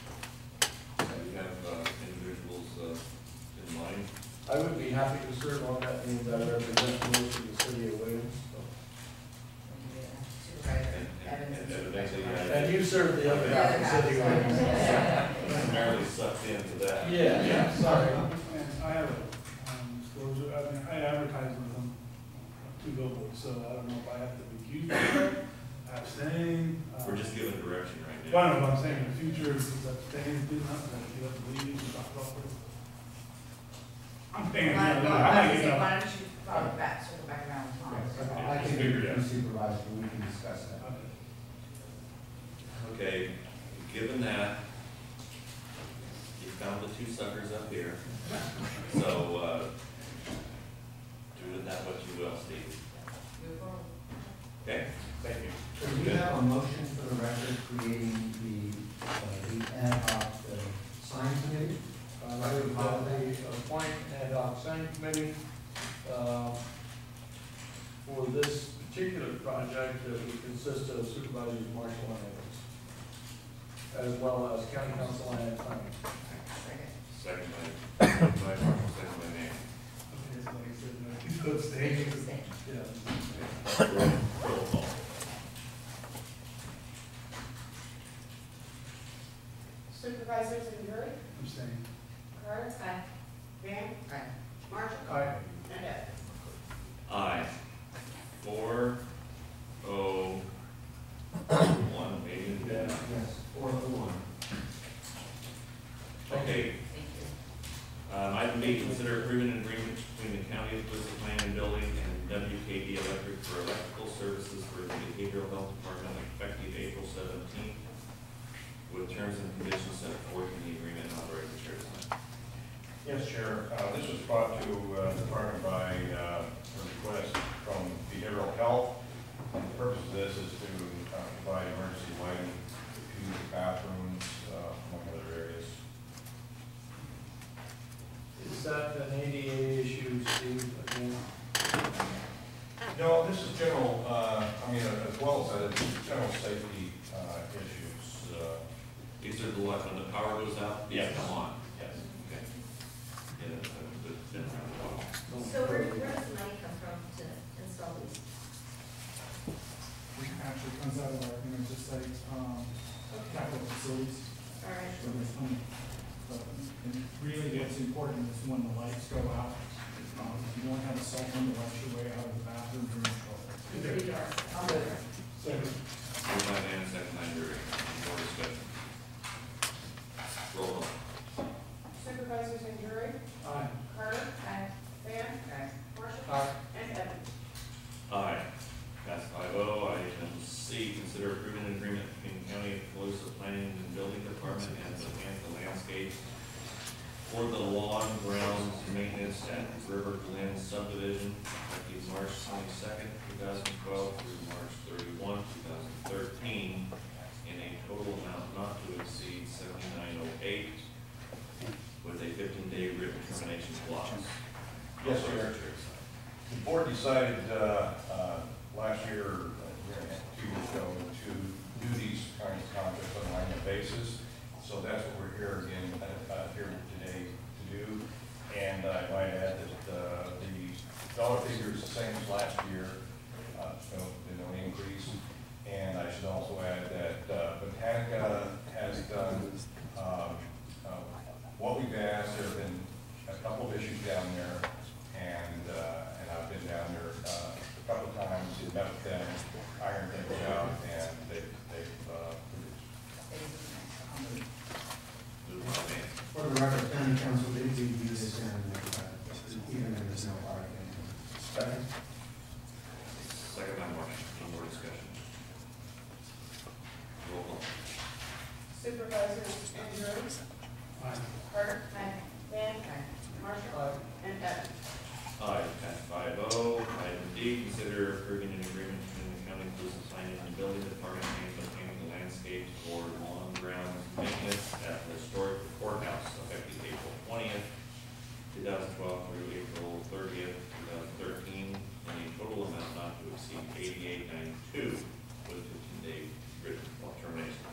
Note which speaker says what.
Speaker 1: you have uh, individuals uh, in mind?
Speaker 2: I would be happy to serve on that, means I represent most of the city of Williams. so.
Speaker 1: And-
Speaker 3: Supervisor
Speaker 1: and-
Speaker 3: Evans.
Speaker 1: and evidently,
Speaker 2: And
Speaker 1: I
Speaker 2: you serve the other half of the city of Williams.
Speaker 1: primarily sucked into that.
Speaker 2: Yeah, yeah, sorry.
Speaker 4: Uh, And I have a um, disclosure, I mean, I advertise with them, uh, two billboards, so I don't know if I have to recuse myself, abstain. uh,
Speaker 1: We're just giving direction right
Speaker 4: I
Speaker 1: now.
Speaker 4: don't know what I'm saying, in the future, if it's abstain, do not, if you have to leave, you talk about it. I'm
Speaker 3: Why
Speaker 4: paying,
Speaker 3: why-
Speaker 4: yeah, no,
Speaker 3: why
Speaker 4: I
Speaker 3: don't
Speaker 4: think,
Speaker 3: you-
Speaker 4: no.
Speaker 3: why don't you follow back, circle back around with Tom? so-
Speaker 5: I can
Speaker 1: Figure it out.
Speaker 5: be supervisor, we can discuss that.
Speaker 1: Okay, given that, you found the two suckers up here, so, uh, do with that what you will, Steve.
Speaker 3: Move forward.
Speaker 1: Okay, thank you.
Speaker 5: Do we have a motion for the record creating the, uh, the ad hoc uh, sign committee?
Speaker 2: Uh, I would probably appoint ad hoc sign committee, uh, for this particular project that would consist of supervisors Marshall and Evans, as well as county council and planning.
Speaker 3: Second.
Speaker 1: Second by, second by Marshall, second by Manning.
Speaker 4: Okay, so like I said, no, you go abstain,
Speaker 3: Second.
Speaker 4: yeah.
Speaker 1: Roll roll call.
Speaker 6: Supervisors in jury,
Speaker 4: Abstain.
Speaker 6: Carter. Aye. Graham.
Speaker 3: Aye.
Speaker 6: Marshall.
Speaker 4: Aye.
Speaker 6: And Evans.
Speaker 1: Aye. Four, oh, one, maybe, yeah.
Speaker 5: Yes, four to one.
Speaker 1: Okay,
Speaker 3: Thank you.
Speaker 1: um, item B, consider approving an agreement between the county of Bliss Plan and Building and WKD Electric for electrical services for the behavioral health department effective April seventeenth with terms and conditions set forth in the agreement and authorizing the chair to sign.
Speaker 7: Yes, Chair, Uh, this was brought to uh, the department by uh, a request from behavioral health. And the purpose of this is to uh, provide emergency lighting to bathrooms, uh, among other areas.
Speaker 2: Is that an ADA issue, Steve, again?
Speaker 7: No, this is general, uh, I mean, as well as that, it's general safety uh, issues. uh,
Speaker 1: These are the ones when the power goes out, these
Speaker 7: Yes.
Speaker 1: come on.
Speaker 7: Yes.
Speaker 1: Okay. Yeah, that's, that's been around a while.
Speaker 8: So where, where does the money come from to install these?
Speaker 4: We actually comes out of our, you know, just like, um, capital facilities.
Speaker 8: All right.
Speaker 4: So there's some- but- And really what's important is when the lights go out, um, if you don't have a cell phone to light your way out of the bathroom, you're in trouble.
Speaker 3: Three doors. I'll move it.
Speaker 1: Moved by Van, second by Drury. Any more discussion? Roll call.
Speaker 6: Supervisors in jury,
Speaker 4: Aye.
Speaker 6: Carter.
Speaker 3: Aye.
Speaker 6: Graham.
Speaker 3: Aye.
Speaker 6: Marshall.
Speaker 2: Aye.
Speaker 6: And Evans.
Speaker 1: Aye. Pass five oh. Item C, consider approving an agreement between County of Calusa Planning and Building Department and the Atlanta Landscape for the lawn grounds maintenance at River Glen subdivision effective March twenty-second, two thousand twelve through March thirty-one, two thousand thirteen, in a total amount not to exceed seventy-nine oh eight with a fifteen-day written termination clause.
Speaker 7: Yes, sir.
Speaker 1: Chair.
Speaker 7: The board decided uh, uh, last year, uh, year and a half, two years ago, to do these kinds of contracts on an annual basis. So that's what we're here again, uh, uh, here today to do. And I might add that uh, the dollar figure is the same as last year, uh, so there's no increase. And I should also add that uh, Botanica has done um, uh, what we've asked, there have been a couple of issues down there, and, uh, and I've been down there uh, a couple of times, and met with them, ironed things out, and they've, they've, uh,
Speaker 1: Moved by Van.
Speaker 5: For the record, county council did do this in, uh, even if there's no argument.
Speaker 7: second,
Speaker 1: Second by Marsh, any more discussion? Roll call.
Speaker 6: Supervisors in jury, Carter. Aye. Graham. Marshall.
Speaker 2: Aye.
Speaker 6: And Evans.
Speaker 1: Aye, passed five oh. Item D, consider approving an agreement between the county police and planning and building department and